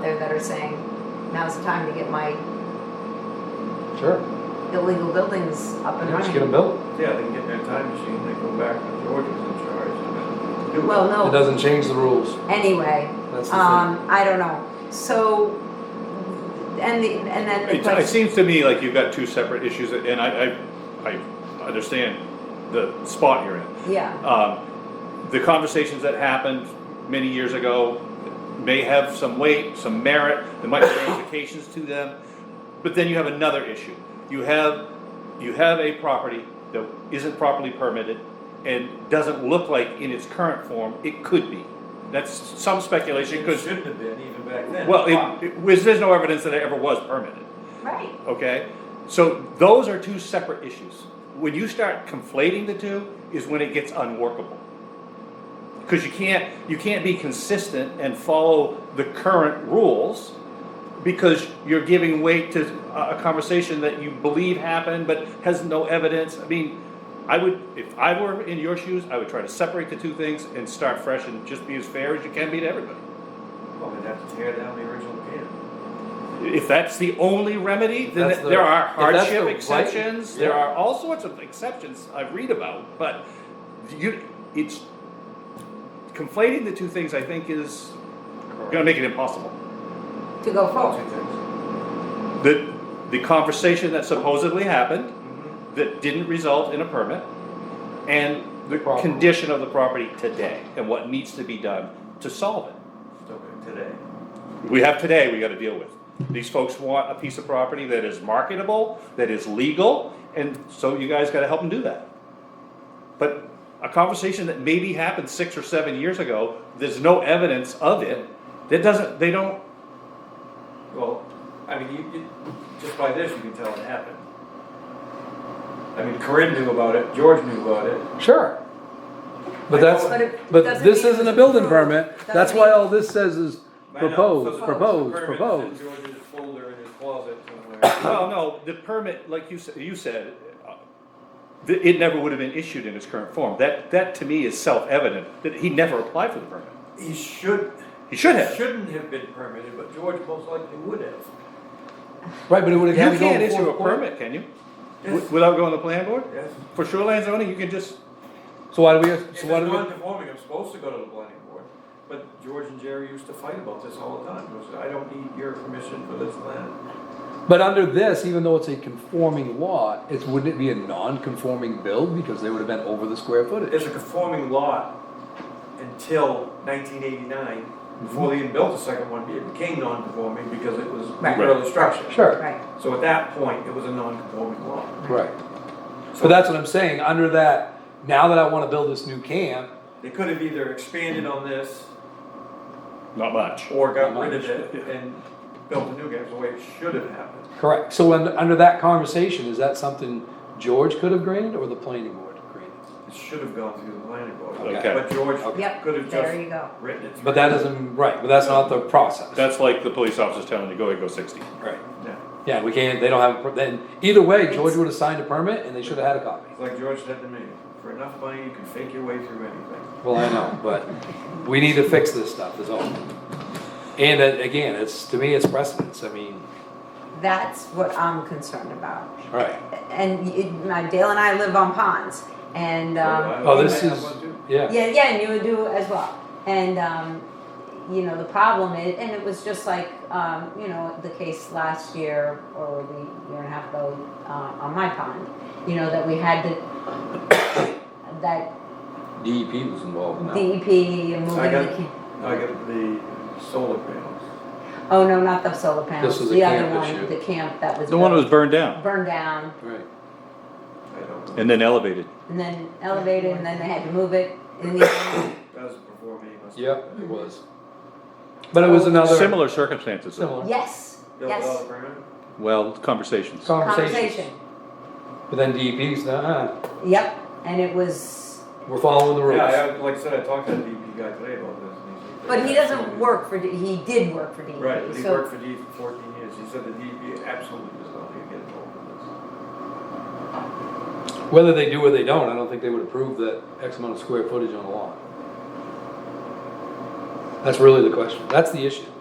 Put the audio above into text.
there that are saying, now's the time to get my Sure, illegal buildings up and Yeah, just get them running. built. Yeah, they can get their time machine, they go back to George who's in charge and then do it. Well, It no, doesn't change the rules. anyway, That's the um, I don't know, so, and the, and then the It, it question. seems to me like you've got two separate issues, and I, I, I understand the spot you're in. Yeah, Um, the conversations that happened many years ago may have some weight, some merit, there might be ramifications to them, but then you have another issue. You have, you have a property that isn't properly permitted and doesn't look like in its current form, it could be. That's some speculation, It because, shouldn't have been even back then. well, it, it, was- there's no evidence that it ever was permitted right, okay? So those are two separate issues. When you start conflating the two is when it gets unworkable. Because you can't, you can't be consistent and follow the current rules because you're giving weight to a a conversation that you believe happened but has no evidence. I mean, I would, if I were in your shoes, I would try to separate the two things and start fresh and just be as fair as you can be to everybody. Well, we'd have to tear down the original can. If that's the only remedy, then That's the- there are if that's the hardship right- exceptions, there yeah. are all sorts of exceptions I read about, but you, it's conflating the two things I think is gonna make it impossible. to go Well, forward, two things. The, the conversation that supposedly happened, mm-hmm, that didn't result in a permit, and the Problem. condition of the property today, and what needs to be done to solve it. Still good today. we have today we gotta deal with. These folks want a piece of property that is marketable, that is legal, and so you guys gotta help them do that. But a conversation that maybe happened six or seven years ago, there's no evidence of it, that doesn't, they don't, Well, I mean, you, you, just by this, you can tell it happened. I mean, Corinne knew about it, George knew about it. thing. Sure. But But that's, it but doesn't this mean isn't a it's building approved. permit, Doesn't that's why mean- all this says is I uh, know, so proposed, the- proposed, the permit's proposed. in George's folder in his closet somewhere. well, no, the permit, like you, sa- you said, uh, th- it never would have been issued in its current form. That, that to me is self-evident, that he never applied for the permit. He should. He should have. Shouldn't have been permitted, but George most likely would have. Right, but it would You have had to go can't before issue the a court. permit, can you? Yes. W- Without going to the planning board? Yes. For shoreline zoning, you can just, So why do we, If it's so why do we, non-conforming, I'm supposed to go to the planning board, but George and Jerry used to fight about this all the time, because I don't need your permission for this land. but under this, even though it's a conforming lot, it's, wouldn't it be a non-conforming build because they would have been over the square footage? It's a conforming lot until nineteen eighty-nine, before they even built the second one, it became non-conforming because it was Right. regular structure. Sure, right, So at that point, it was a non-conforming lot. right. So But that's what I'm saying, under that, now that I wanna build this new camp, They could have either expanded on this not much. or got rid of it and built a new guy, It's the way it should have happened. correct, so when, under that conversation, is that something George could have granted or the planning board granted? It should have gone through the planning board. Okay. But George yep, could have there you just go, written it. But that isn't, right, but that's not the process. That's like the police officers telling you, go ahead, go sixty. Right. Yeah. Yeah, we can't, they don't have, a per- then, either way, George would have signed a permit and they should have had a copy. It's like George said to me, for enough money, you can fake your way through anything. Well, I know, but we need to fix this stuff, is all. And uh, again, it's, to me, it's precedence, I mean, that's what I'm concerned about. right, And it, my- Dale and I live on ponds, and, um, Oh, this I have is- one too. yeah. Yeah, yeah, and you would do as well. And, um, you know, the problem is, and it was just like, um, you know, the case last year or the year and a half ago, uh, on my pond, you know, that we had to, that DEP E was involved in that. one. DEP and I moving the, got- ca- I got the solar panels. oh, no, not the solar This panels, was a the other camp issue. one, the camp that was The one that was built- burned down burned down Right. I don't know. and then elevated. and then elevated and then they had to move it in the end. That was before me. must- Yep, it was. But it was another. Similar circumstances, Similar. Yes, Built all yes, the permit? well, conversations. Conversations. conversation, But then DEP's, uh-uh, yep, and it was, we're following the rules. Yeah, I, like I said, I talked to the DP guy today about this. and he's like- But he doesn't work for, D- he did work for DEP. Right, but he so- worked for DEP for fourteen years. He said the DEP absolutely does not need to get involved in this. Whether they do or they don't, I don't think they would approve that X amount of square footage on a lot. That's really the question, that's the issue.